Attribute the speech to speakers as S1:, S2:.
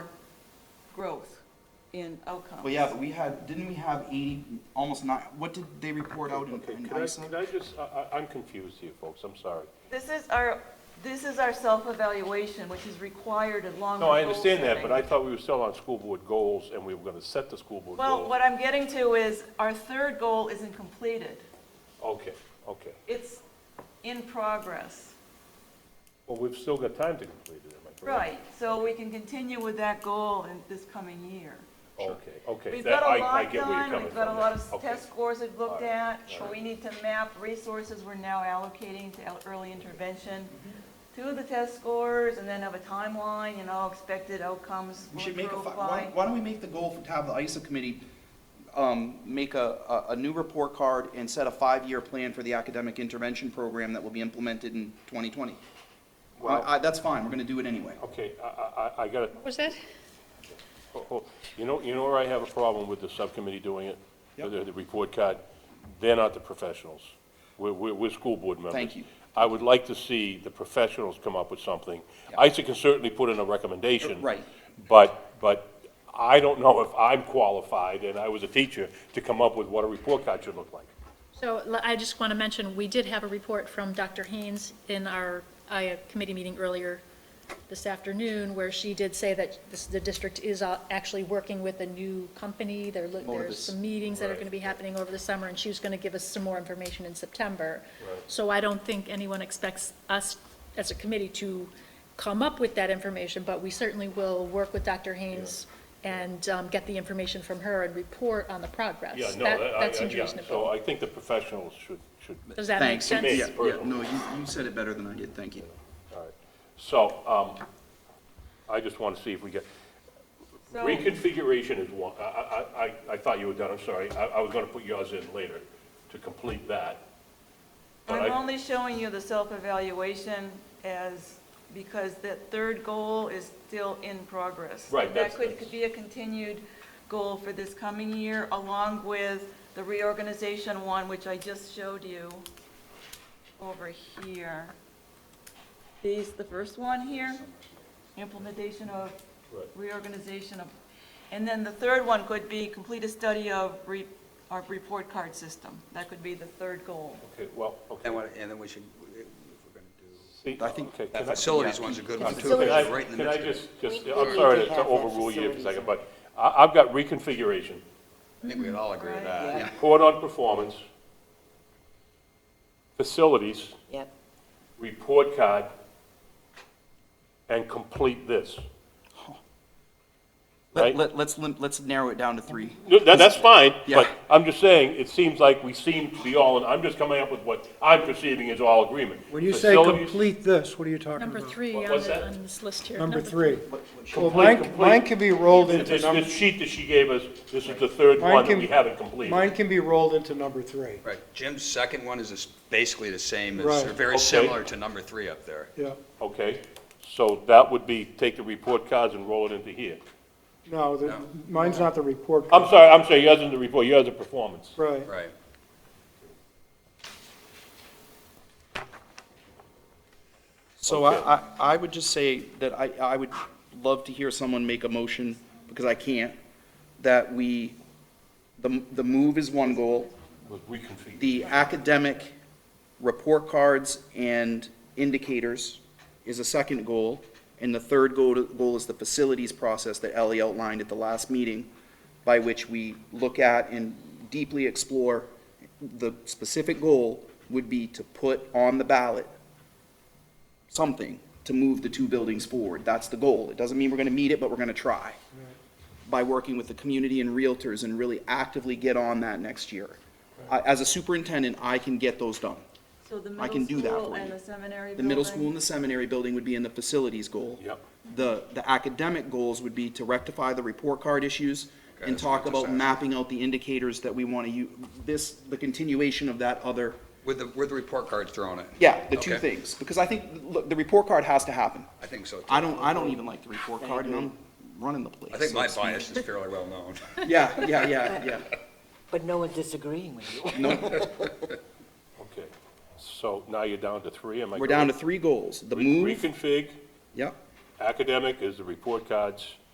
S1: growth in outcomes.
S2: But yeah, but we had, didn't we have eighty, almost nine, what did they report out in,
S3: Okay,
S2: in
S3: could I,
S2: ISAC?
S3: could I just, I, I- I'm confused here, folks, I'm sorry.
S1: This is our, this is our self-evaluation, which is required in long-term
S3: No, I understand
S1: goal
S3: that, but
S1: setting.
S3: I thought we were still on school board goals, and we were gonna set the school board goals.
S1: Well, what I'm getting to is, our third goal isn't completed.
S3: Okay, okay.
S1: It's in progress.
S3: Well, we've still got time to complete it, am I correct?
S1: Right, so we can continue with that goal in this coming year.
S3: Okay, okay.
S1: We've
S3: that-
S1: got
S3: I-
S1: a
S3: I
S1: lot
S3: get where you're
S1: done,
S3: coming
S1: we've got a
S3: from
S1: lot
S3: now.
S1: of
S3: Okay.
S1: test scores we've looked
S3: All right,
S1: at,
S3: all
S1: but we need to map resources we're now allocating to el- early intervention
S3: Mm-hmm.
S1: to the test scores, and then have a timeline, you know, expected outcomes
S2: We
S1: will
S2: should make a,
S1: improve
S2: fi- why,
S1: by.
S2: don't- why don't we make the goal for, to have the ISA committee, um, make a, a, a new report card and set a five-year plan for the academic intervention program that will be implemented in twenty twenty?
S3: Well-
S2: I, I, that's fine, we're gonna do it anyway.
S3: Okay, I, I, I- I gotta,
S4: Was that?
S3: oh, oh, you know, you know where I have a problem with the subcommittee doing it?
S2: Yep.
S3: The, the report card, they're not the professionals. We're, we're, we're school board members.
S2: Thank you.
S3: I would like to see the professionals come up with something.
S2: Yeah.
S3: ISA can certainly put in a recommendation.
S2: Right.
S3: But, but I don't know if I'm qualified, and I was a teacher, to come up with what a report card should look like.
S4: So l- I just want to mention, we did have a report from Dr. Haynes in our IA committee meeting earlier this afternoon, where she did say that this- the district is uh, actually working with a new company. There look- There's
S2: Motivus.
S4: some meetings that are going to be happening over the summer, and she was going to give us some more information in September. So I don't think anyone expects us as a committee to come up with that information, but we certainly will work with Dr. Haynes and um, get the information from her and report on the progress.
S3: Yeah, no,
S4: That-
S3: that- I-
S4: That
S3: I-
S4: seems
S3: yeah.
S4: reasonable.
S3: So I think the professionals should, should,
S4: Does that make
S2: Thanks.
S4: sense?
S3: Me.
S2: Yeah, yeah,
S3: personally.
S2: no, you, you said it better than I did, thank you.
S3: all right. So, um, I just want to see if we get,
S1: So-
S3: reconfiguration is one, I, I, I, I thought you were done, I'm sorry. I, I was gonna put yours in later to complete that. But
S1: I'm
S3: I-
S1: only showing you the self-evaluation as, because that third goal is still in progress.
S3: Right,
S1: That
S3: that's-
S1: could,
S3: that's-
S1: could be a continued goal for this coming year, along with the reorganization one, which I just showed you over here. These, the first one here, implementation of
S3: Right.
S1: reorganization of, and then the third one could be complete a study of re, our report card system. That could be the third goal.
S3: Okay, well, okay.
S5: And what, and then we should, if we're gonna do,
S3: See,
S2: I think
S3: okay,
S5: that
S3: can I-
S5: facilities one's a good one too,
S3: Can
S5: because
S3: I,
S5: it's right in the
S3: can
S5: midst
S3: I
S5: of it.
S3: just, just,
S6: We-
S3: I'm
S6: we
S3: sorry
S6: did
S3: to to
S6: have that
S3: overrule you for a second,
S6: facilities.
S3: but I, I've got reconfiguration,
S5: I think we'd all agree with
S1: Right.
S5: that.
S2: Yeah.
S3: report on performance, facilities,
S6: Yep.
S3: report card, and complete this. Right.
S2: Let, let, let's, lim- let's narrow it down to three.
S3: No, That, that's fine,
S2: Yeah.
S3: but I'm just saying, it seems like we seem to be all, in I'm just coming up with what I'm perceiving as all agreement.
S7: When you say
S3: Facilities-
S7: complete this, what are you talking
S4: Number
S7: about?
S4: three
S3: What
S4: on
S3: was
S4: the-
S3: that?
S4: on this list here.
S7: Number three. Well,
S3: complete-
S7: mine,
S3: complete-
S7: mine can be rolled into
S3: This,
S7: number,
S3: this sheet that she gave us, this is the third
S7: Mine
S3: one that
S7: can-
S3: we haven't completed.
S7: mine can be rolled into number three,
S5: Right, Jim's second one is this- basically the same, as
S7: Right.
S5: or very
S3: Okay.
S5: similar to number three up there.
S7: yeah.
S3: Okay, so that would be, take the report cards and roll it into here.
S7: No, the-
S5: No.
S7: mine's not the report.
S3: I'm
S7: card.
S3: sorry, I'm sorry, yours isn't the report, yours is performance.
S7: Right,
S5: Right,
S2: So I, I, I would just say that I, I would love to hear someone make a motion, because I can't, that we, the, the move is one goal,
S3: Was reconfigured.
S2: the academic report cards and indicators is a second goal, and the third goal, goal is the facilities process that Ellie outlined at the last meeting, by which we look at and deeply explore, the specific goal would be to put on the ballot something to move the two buildings forward. That's the goal. It doesn't mean we're gonna meet it, but we're gonna try. By working with the community and realtors and really actively get on that next year. I, as a superintendent, I can get those done.
S1: So the
S2: I can
S1: middle
S2: do that
S1: school
S2: for
S1: and
S2: you.
S1: the seminary
S2: The middle
S1: building?
S2: school and the seminary building would be in the facilities goal.
S3: Yep.
S2: The, the academic goals would be to rectify the report card issues and
S5: that's
S2: talk
S5: what
S2: about
S5: this is.
S2: mapping out the indicators that we wanna use, this, the continuation of that other
S5: with the, with the report cards thrown in.
S2: Yeah, the two
S5: Okay.
S2: things, because I think, look, the report card has to happen.
S5: I think so too.
S2: I don't, I don't even like the report card, and I'm running the place.
S5: I think
S2: so
S5: my
S2: to speak.
S5: bias is fairly well known.
S2: Yeah, yeah, yeah, yeah.
S6: But no one's disagreeing with you.
S3: Okay, so now you're down to three, am I
S2: We're down to
S3: correct?
S2: three goals, the
S3: Re-
S2: move,
S3: Reconfig,
S2: yep.
S3: academic is the report cards.